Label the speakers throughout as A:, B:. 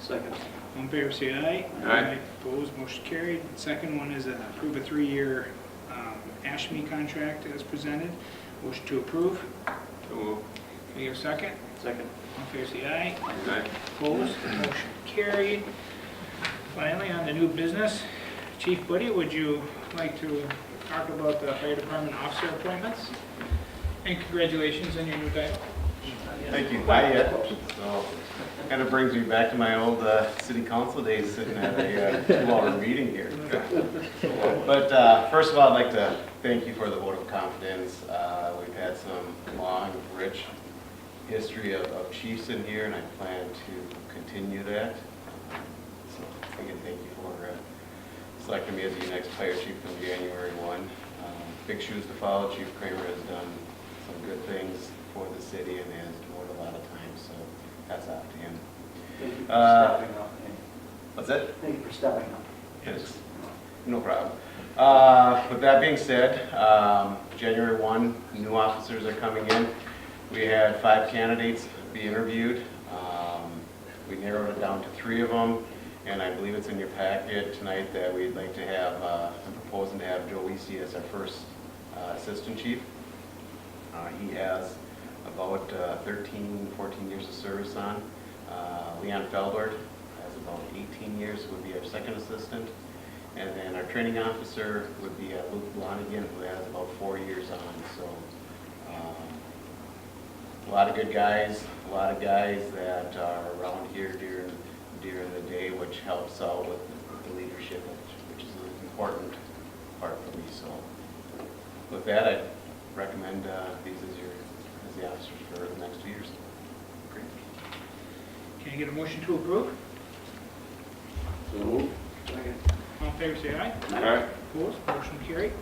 A: Second.
B: All in favor, say aye.
C: Aye.
B: Opposed, motion carried. Second one is uh, approve a three-year um, ASHME contract as presented. Motion to approve.
C: So moved.
B: Can we have a second?
A: Second.
B: All in favor, say aye.
C: Aye.
B: Opposed, motion carried. Finally, on the new business, Chief Buddy, would you like to talk about the fire department officer appointments? And congratulations on your new title.
D: Thank you, not yet. So, kind of brings me back to my old uh, city council days, sitting at a uh, two-hour meeting here. But uh, first of all, I'd like to thank you for the vote of confidence. Uh, We've had some long, rich history of- of chiefs in here, and I plan to continue that. So, again, thank you for uh, selecting me as your next fire chief from January 1. Um, Big shoes to follow. Chief Kramer has done some good things for the city and has devoted a lot of time, so hats off to him.
A: Thank you for
D: Uh,
A: stepping up.
D: What's that?
A: Thank you for stepping up.
D: Yes. No problem. Uh, With that being said, um, January 1, new officers are coming in. We had five candidates be interviewed. Um, We narrowed it down to three of them, and I believe it's in your packet tonight that we'd like to have, uh, I'm proposing to have Joe Weesey as our first uh, assistant chief. Uh, He has about uh, 13, 14 years of service on. Uh, Leon Feldord has about 18 years, would be our second assistant. And then our training officer would be uh, Luke Blonigan, who has about four years on, so. um, A lot of good guys, a lot of guys that are around here during, during the day, which helps out with with the leadership, which which is an important part for me, so. With that, I recommend uh, these as your, as the officers for the next two years. Great.
B: Can I get a motion to approve?
A: So moved. Second.
B: All in favor, say aye.
C: Aye.
B: Opposed, motion carried.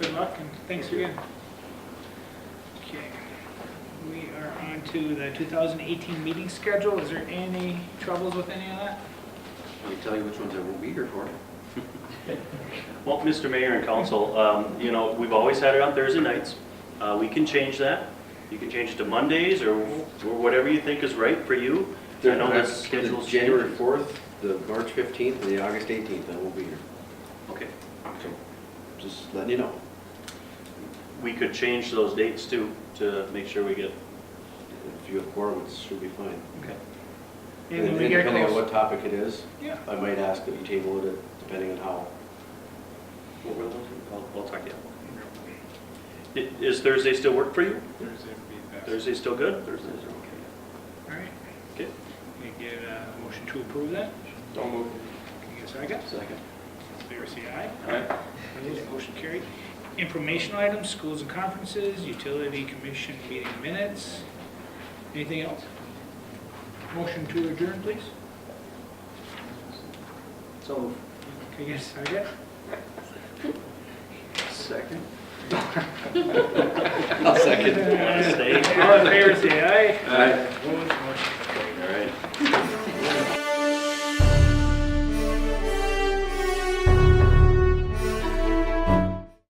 B: Good luck and thanks again. Okay, we are on to the 2018 meeting schedule. Is there any troubles with any of that?
E: Let me tell you which ones I won't be here for.
A: Well, Mr. Mayor and Council, um, you know, we've always had it on Thursday nights. Uh, We can change that. You can change it to Mondays or or whatever you think is right for you. I know the schedule's
E: The
A: changed.
E: January 4th, the March 15th, and the August 18th, I won't be here.
A: Okay.
E: So just letting you know.
A: We could change those dates too, to make sure we get,
E: If you have quorum, it should be fine.
A: okay.
B: And when
E: And
B: we get
E: Depending on
B: close.
E: what topic it is,
B: Yeah,
E: I might ask that you table it, depending on how.
A: Well, we'll- I'll I'll talk to you. I- Is Thursday still work for you?
D: Thursday would be
A: Thursday still good?
E: Thursdays are okay.
B: all right.
A: Okay.
B: Can I get a motion to approve that?
C: So moved.
B: Can I get a second?
E: Second.
B: Favor say aye.
C: Aye.
B: Opposed, motion carried. Informational items, schools and conferences, utility commission meeting minutes. Anything else? Motion to adjourn, please.
A: So moved.
B: Can I get a second?
A: Second.
E: I'll second.
A: Want to stay?
B: All in favor, say aye.
C: Aye.
B: Opposed, motion